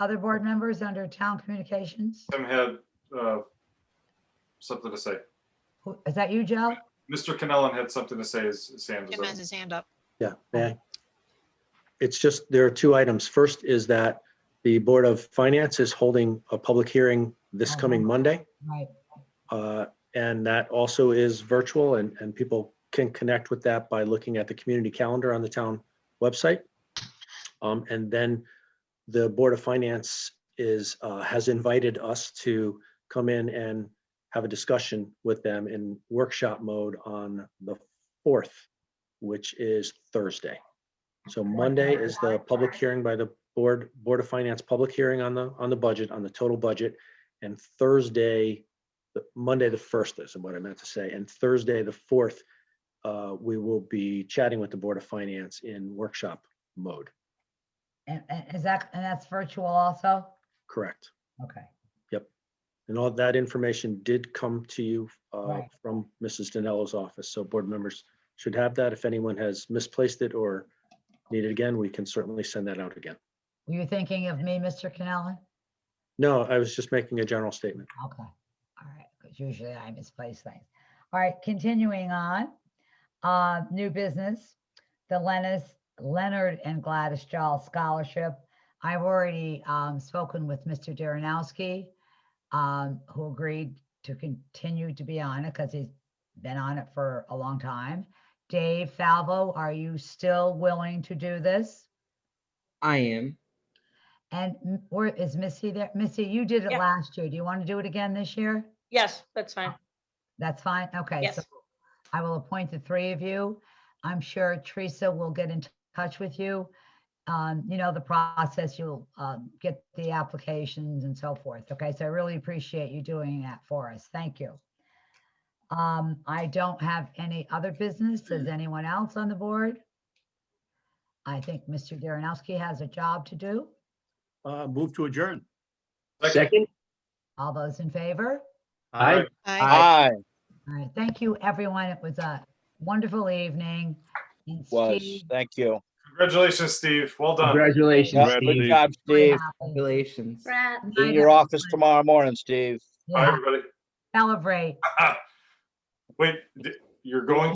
Other board members under town communications? Tim had uh, something to say. Who- Is that you, Joe? Mr. Kennellan had something to say as as Sam was Jim up. has his hand up. Yeah, may I? It's just, there are two items. First is that the Board of Finance is holding a public hearing this coming Mhm. Monday. Right. uh, And that also is virtual and, and people can connect with that by looking at the community calendar on the town website. Um, And then the Board of Finance is, uh, has invited us to come in and have a discussion with them in workshop mode on the fourth, which is Thursday. So Monday is the public hearing by the Board, Board of Finance, public hearing on the, on the budget, on the total budget. And Thursday, the- Monday, the first is what I meant to say, and Thursday, the fourth, uh, we will be chatting with the Board of Finance in workshop mode, And, and is that, and that's virtual also? correct? Okay. And all that information did come to you uh, Right. from Mrs. Danello's office, so board members should have that. If anyone has misplaced it or need it again, we can certainly send that out again. Were you thinking of me, Mr. Canelli? No, I was just making a general statement. Okay, all right, because usually I misplace things. All right, continuing on, uh, new business, the Lennis, Leonard and Gladys Jall Scholarship. I've already, um, spoken with Mr. Darrenowski, um, who agreed to continue to be on it because he's been on it for a long time. Dave Falvo, are you still willing to do this? I am. And m- where is Missy there? Missy, you did it Yeah. last year. Do you want to do it again this year? Yes, that's fine. That's fine, okay. Yes. so I will appoint the three of you. I'm sure Teresa will get in t- touch with you. Um, you know, the process, you'll, um, get the applications and so forth, okay? So I really appreciate you doing that for us, thank you. Um, I don't have any other business, does anyone else on the board? I think Mr. Darrenowski has a job to do, Uh, move to adjourn. Second? all those in favor? Aye. Aye. Aye. All right, thank you, everyone, it was a wonderful evening. And Was, Steve, thank you. Congratulations, Steve. Well done. Congratulations, Yeah, Good Steve. job, Steve. happy. Congratulations. Brad. Be in your office tomorrow morning, Steve. Bye, Yeah, everybody. celebrate. Wait, d- you're going